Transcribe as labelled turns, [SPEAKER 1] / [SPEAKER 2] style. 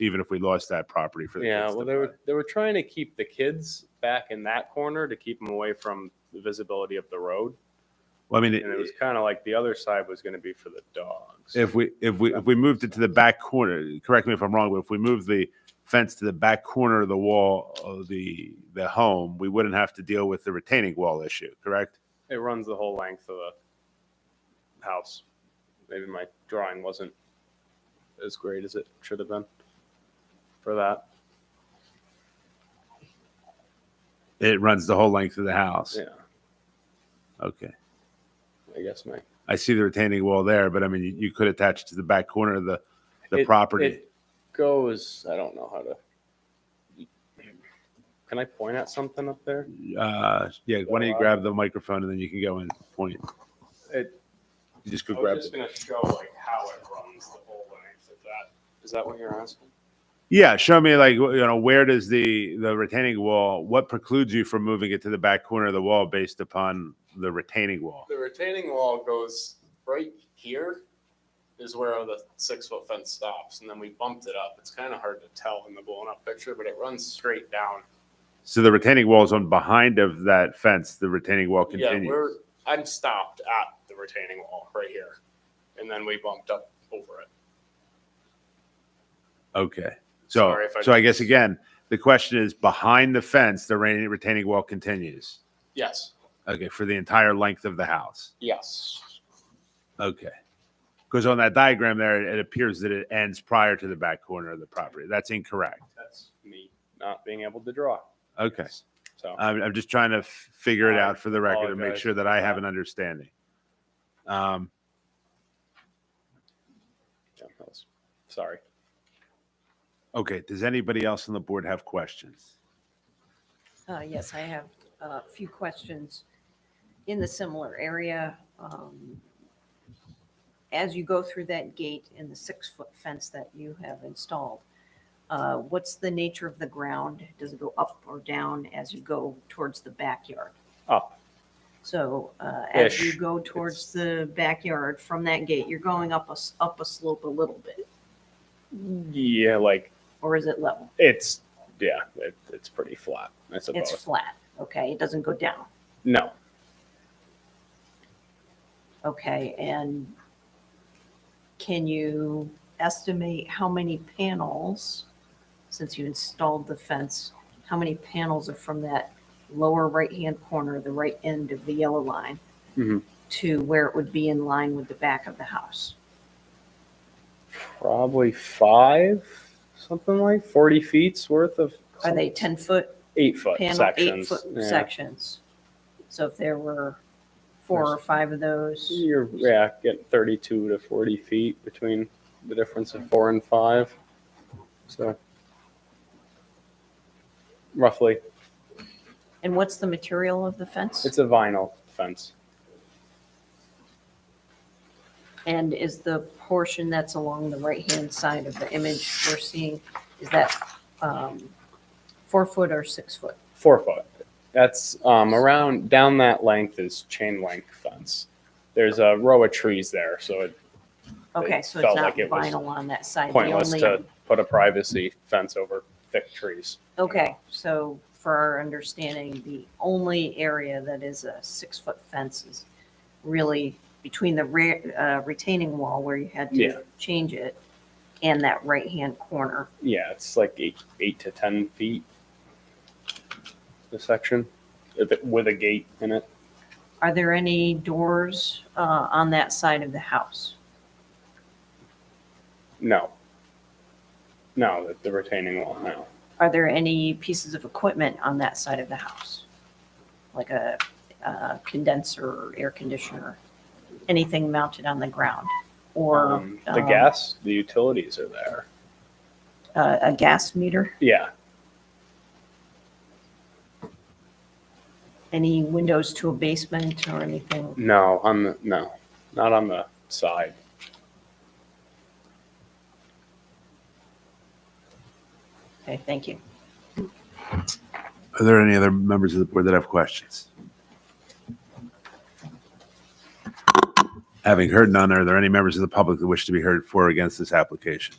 [SPEAKER 1] even if we lost that property for the
[SPEAKER 2] Yeah,
[SPEAKER 1] kids
[SPEAKER 2] well,
[SPEAKER 1] to
[SPEAKER 2] they
[SPEAKER 1] play.
[SPEAKER 2] were, they were trying to keep the kids back in that corner to keep them away from the visibility of the road.
[SPEAKER 1] Well, I mean,
[SPEAKER 2] And it was kind of like the other side was going to be for the dogs.
[SPEAKER 1] if we if we if we moved it to the back corner, correct me if I'm wrong, but if we moved the fence to the back corner of the wall of the the home, we wouldn't have to deal with the retaining wall issue, correct?
[SPEAKER 2] It runs the whole length of the house. Maybe my drawing wasn't as great as it should have been for that.
[SPEAKER 1] It runs the whole length of the house.
[SPEAKER 2] Yeah,
[SPEAKER 1] Okay.
[SPEAKER 2] I guess my
[SPEAKER 1] I see the retaining wall there, but I mean, you, you could attach it to the back corner of the the
[SPEAKER 2] It-
[SPEAKER 1] property.
[SPEAKER 2] It goes. I don't know how to. Can I point at something up there?
[SPEAKER 1] uh, yeah, why don't you grab the microphone and then you can go and point.
[SPEAKER 2] It-
[SPEAKER 1] You just go grab it.
[SPEAKER 2] gonna show like how it runs the whole length of that. Is that what you're asking?
[SPEAKER 1] Yeah, show me like you know where does the the retaining wall? What precludes you from moving it to the back corner of the wall based upon the retaining wall?
[SPEAKER 2] The retaining wall goes right here. Is where the six foot fence stops, and then we bumped it up. It's kind of hard to tell in the blown up picture, but it runs straight down.
[SPEAKER 1] So the retaining wall is on behind of that fence. The retaining wall
[SPEAKER 2] Yeah,
[SPEAKER 1] continues.
[SPEAKER 2] we're I'm stopped at the retaining wall right here, and then we bumped up over it.
[SPEAKER 1] okay. So
[SPEAKER 2] Sorry if I-
[SPEAKER 1] so I guess again the question is behind the fence the re- retaining wall continues.
[SPEAKER 2] Yes,
[SPEAKER 1] Okay, for the entire length of the house.
[SPEAKER 2] yes.
[SPEAKER 1] Okay. Because on that diagram there, it appears that it ends prior to the back corner of the property. That's incorrect.
[SPEAKER 2] That's me not being able to draw.
[SPEAKER 1] Okay.
[SPEAKER 2] So
[SPEAKER 1] I'm, I'm just trying to f- figure it
[SPEAKER 2] I
[SPEAKER 1] out for the record and make
[SPEAKER 2] apologize
[SPEAKER 1] sure that
[SPEAKER 2] for
[SPEAKER 1] I
[SPEAKER 2] that.
[SPEAKER 1] have an understanding. Um,
[SPEAKER 2] yeah, that was- sorry.
[SPEAKER 1] okay. Does anybody else on the board have questions?
[SPEAKER 3] Uh, Yes, I have a few questions in the similar area. Um, As you go through that gate and the six-foot fence that you have installed, uh, what's the nature of the ground? Does it go up or down as you go towards the backyard?
[SPEAKER 2] Up.
[SPEAKER 3] So uh, as you
[SPEAKER 2] Ish.
[SPEAKER 3] go towards the backyard from that gate, you're going up a, s- up a slope a little bit,
[SPEAKER 2] Mm. Yeah, like
[SPEAKER 3] or is it level?
[SPEAKER 2] it's yeah, it, it's pretty flat. I suppose.
[SPEAKER 3] It's flat, okay? It doesn't go down?
[SPEAKER 2] no,
[SPEAKER 3] Okay, and can you estimate how many panels, since you installed the fence, how many panels are from that lower right-hand corner, the right end of the yellow line,
[SPEAKER 2] Mhm.
[SPEAKER 3] to where it would be in line with the back of the house?
[SPEAKER 2] probably five, something like forty feet's worth of.
[SPEAKER 3] Are they 10-foot
[SPEAKER 2] eight foot
[SPEAKER 3] panel,
[SPEAKER 2] uh, sections?
[SPEAKER 3] eight-foot
[SPEAKER 2] yeah.
[SPEAKER 3] sections? So if there were four or five of those,
[SPEAKER 2] You're yeah, get thirty-two to forty feet between the difference of four and five. So roughly,
[SPEAKER 3] and what's the material of the fence?
[SPEAKER 2] it's a vinyl fence.
[SPEAKER 3] And is the portion that's along the right-hand side of the image we're seeing, is that um, four foot or six foot?
[SPEAKER 2] four foot. That's um, around down that length is chain link fence. There's a row of trees there, so it
[SPEAKER 3] Okay, so it's
[SPEAKER 2] felt
[SPEAKER 3] not
[SPEAKER 2] like it was
[SPEAKER 3] vinyl on that side. The
[SPEAKER 2] pointless
[SPEAKER 3] only-
[SPEAKER 2] to put a privacy fence over thick trees.
[SPEAKER 3] Okay, so for our understanding, the only area that is a six-foot fence is really between the re- uh, retaining wall where you had
[SPEAKER 2] Yeah.
[SPEAKER 3] to change it and that right-hand corner.
[SPEAKER 2] Yeah, it's like eight eight to ten feet. The section if it- with a gate in it.
[SPEAKER 3] Are there any doors uh, on that side of the house?
[SPEAKER 2] No. No, the, the retaining wall. No.
[SPEAKER 3] Are there any pieces of equipment on that side of the house? Like a uh, condenser, or air conditioner, anything mounted on the ground? Or
[SPEAKER 2] Um, the
[SPEAKER 3] um,
[SPEAKER 2] gas, the utilities are there.
[SPEAKER 3] a a gas meter?
[SPEAKER 2] Yeah,
[SPEAKER 3] Any windows to a basement or anything?
[SPEAKER 2] no, on the no, not on the side.
[SPEAKER 3] Okay, thank you.
[SPEAKER 1] Are there any other members of the board that have questions? Having heard none, are there any members of the public that wish to be heard for or against this application?